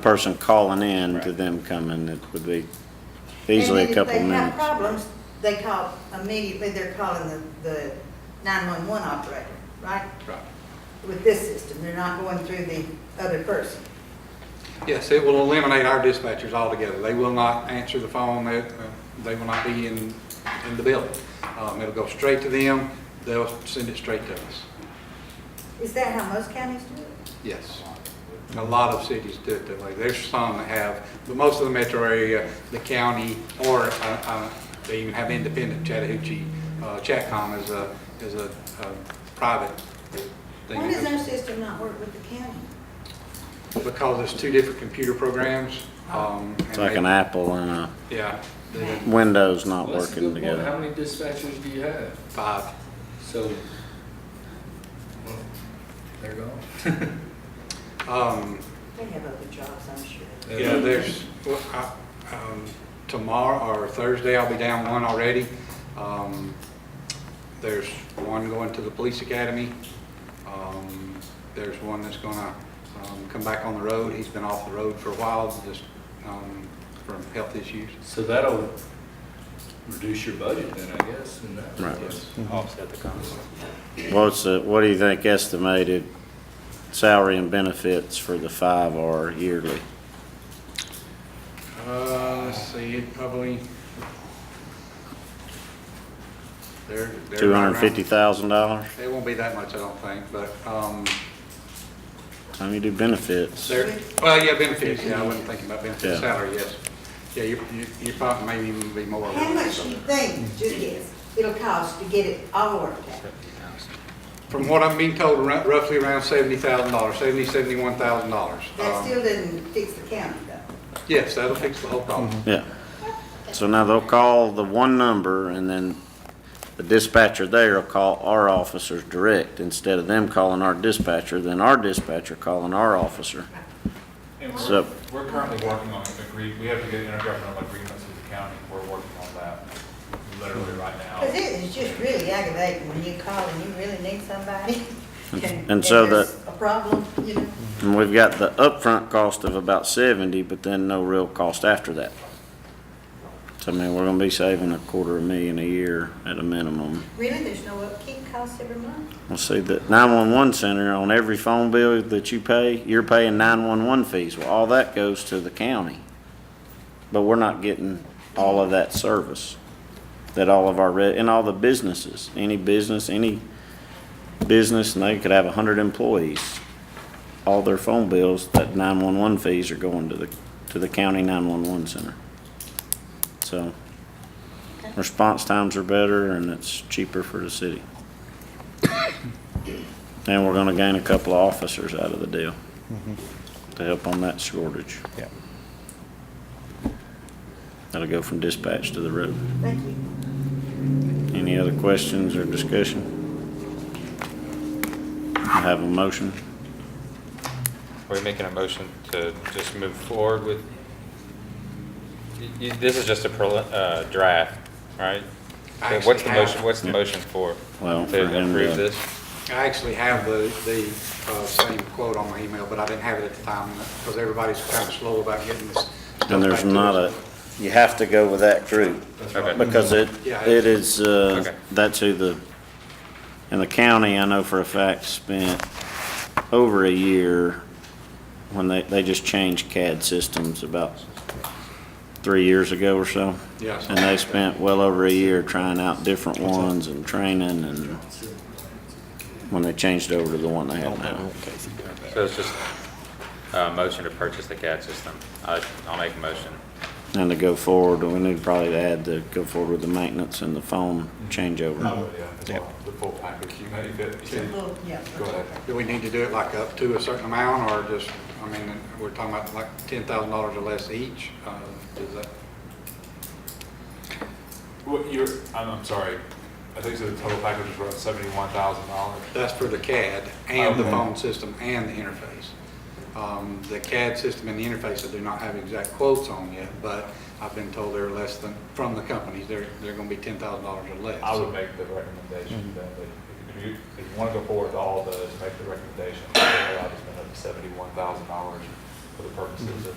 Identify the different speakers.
Speaker 1: person calling in to them coming, it would be easily
Speaker 2: And
Speaker 1: a
Speaker 2: if
Speaker 1: couple
Speaker 2: They have
Speaker 1: minutes.
Speaker 2: problems, they call immediately, they're calling the, the nine-one-one operator, right?
Speaker 3: Right.
Speaker 2: With this system, they're not going through the other person.
Speaker 3: Yes, it will eliminate our dispatchers altogether. They will not answer the phone, they, uh, they will not be in, in the building. Um, It'll go straight to them, they'll send it straight to us.
Speaker 2: Is that how most counties do it?
Speaker 3: Yes. A lot of cities do it that way. There's some that have, but most of the metro area, the county, or uh, uh, they even have independent Chattahoochee. uh, Chatcom is a, is a uh, private thing.
Speaker 2: Why does our system not work with the county?
Speaker 3: Because it's two different computer programs. um, and
Speaker 1: It's like
Speaker 3: they-
Speaker 1: an Apple and a
Speaker 3: Yeah, they-
Speaker 1: Windows not
Speaker 4: Well, that's a
Speaker 1: working
Speaker 4: good point. How
Speaker 1: together.
Speaker 4: many dispatchers do you have?
Speaker 3: five.
Speaker 4: So, well, they're gone.
Speaker 3: Um,
Speaker 2: They have other jobs, I'm sure.
Speaker 3: yeah, there's, well, I- um, tomorrow or Thursday, I'll be down one already. Um, there's one going to the police academy. Um, there's one that's gonna, um, come back on the road. He's been off the road for a while, just, um, from health issues.
Speaker 4: So that'll reduce your budget then, I guess, in that
Speaker 1: Right.
Speaker 4: case.
Speaker 2: Mm-hmm.
Speaker 3: Offset the cost.
Speaker 1: What's, the- what do you think estimated salary and benefits for the five are yearly?
Speaker 3: Uh, let's see, it probably. They're. they're
Speaker 1: Two hundred
Speaker 3: around-
Speaker 1: and fifty thousand dollars?
Speaker 3: It won't be that much, I don't think, but, um,
Speaker 1: Time you do benefits.
Speaker 3: There, well, yeah, benefits, yeah, I wasn't thinking about benefits,
Speaker 1: Yeah.
Speaker 3: salary, yes. Yeah, you, you, you probably may even be more.
Speaker 2: How much do you think, just guess, it'll cost to get it all worked out?
Speaker 3: From what I'm being told, rou- roughly around seventy thousand dollars, seventy, seventy-one thousand dollars. Um,
Speaker 2: That still doesn't fix the county though.
Speaker 3: Yes, that'll fix the whole problem.
Speaker 1: Yeah. So now they'll call the one number and then the dispatcher there will call our officers direct instead of them calling our dispatcher, then our dispatcher calling our officer.
Speaker 5: And
Speaker 1: So-
Speaker 5: we're, we're currently working on an agreement, we have to get intergovernmental agreements with the county, we're working on that literally right now.
Speaker 2: Cause it is just really aggravating when you call and you really need somebody and, and
Speaker 1: And so
Speaker 2: there's a problem, you know?
Speaker 1: And we've got the upfront cost of about seventy, but then no real cost after that. So I mean, we're gonna be saving a quarter of a million a year at a minimum.
Speaker 2: Really, there's no upkeep cost every month?
Speaker 1: We'll see that nine-one-one center, on every phone bill that you pay, you're paying nine-one-one fees. Well, all that goes to the county. But we're not getting all of that service that all of our, re- and all the businesses, any business, any business, and they could have a hundred employees. All their phone bills, that nine-one-one fees are going to the, to the county nine-one-one center. So, response times are better and it's cheaper for the city. And we're gonna gain a couple of officers out of the deal to help on that shortage. Yeah. That'll go from dispatch to the road.
Speaker 2: Thank you.
Speaker 1: Any other questions or discussion? I Have a motion?
Speaker 6: Are we making a motion to just move forward with, y- y- this is just a prelim- uh, draft, right?
Speaker 3: I
Speaker 6: So What's
Speaker 3: actually
Speaker 6: the
Speaker 3: have-
Speaker 6: motion, what's the
Speaker 1: Yeah.
Speaker 6: motion for?
Speaker 1: Well, for
Speaker 6: To
Speaker 1: him to-
Speaker 6: approve this?
Speaker 1: Mm-hmm.
Speaker 3: I actually have the, the, uh, same quote on my email, but I didn't have it at the time, because everybody's kind of slow about getting this. stuff
Speaker 1: And
Speaker 3: back
Speaker 1: there's
Speaker 3: to
Speaker 1: not a,
Speaker 3: us.
Speaker 1: you have to go with that group.
Speaker 6: Okay,
Speaker 1: Because it,
Speaker 3: Yeah,
Speaker 1: it is, uh,
Speaker 6: Okay.
Speaker 1: that's who the, and the county, I know for a fact, spent over a year when they, they just changed CAD systems about three years ago or so.
Speaker 3: Yes.
Speaker 1: And they spent well over a year trying out different ones and training and when they changed over to the one they have now.
Speaker 6: so it's just a motion to purchase the CAD system. I- I'll make a motion.
Speaker 1: And to go forward, we need probably to add the, go forward with the maintenance and the phone
Speaker 5: I
Speaker 1: changeover.
Speaker 5: would, yeah, as well, the full package, you may, that, you said-
Speaker 2: Well, yeah.
Speaker 5: go ahead.
Speaker 3: Do we need to do it like up to a certain amount, or just, I mean, we're talking about like ten thousand dollars or less each, uh, is that?
Speaker 5: What, you're, I'm, I'm sorry, I think so the total package was around seventy-one thousand dollars.
Speaker 3: That's for the CAD and the
Speaker 5: Okay.
Speaker 3: phone system and the interface. Um, The CAD system and the interface, I do not have exact quotes on yet, but I've been told they're less than, from the companies, they're, they're gonna be ten thousand dollars or less.
Speaker 5: I would make the recommendation that, they- if you, if you wanna go forward with all those, make the recommendation, that they're allowed to spend up to seventy-one thousand dollars
Speaker 6: for the purposes of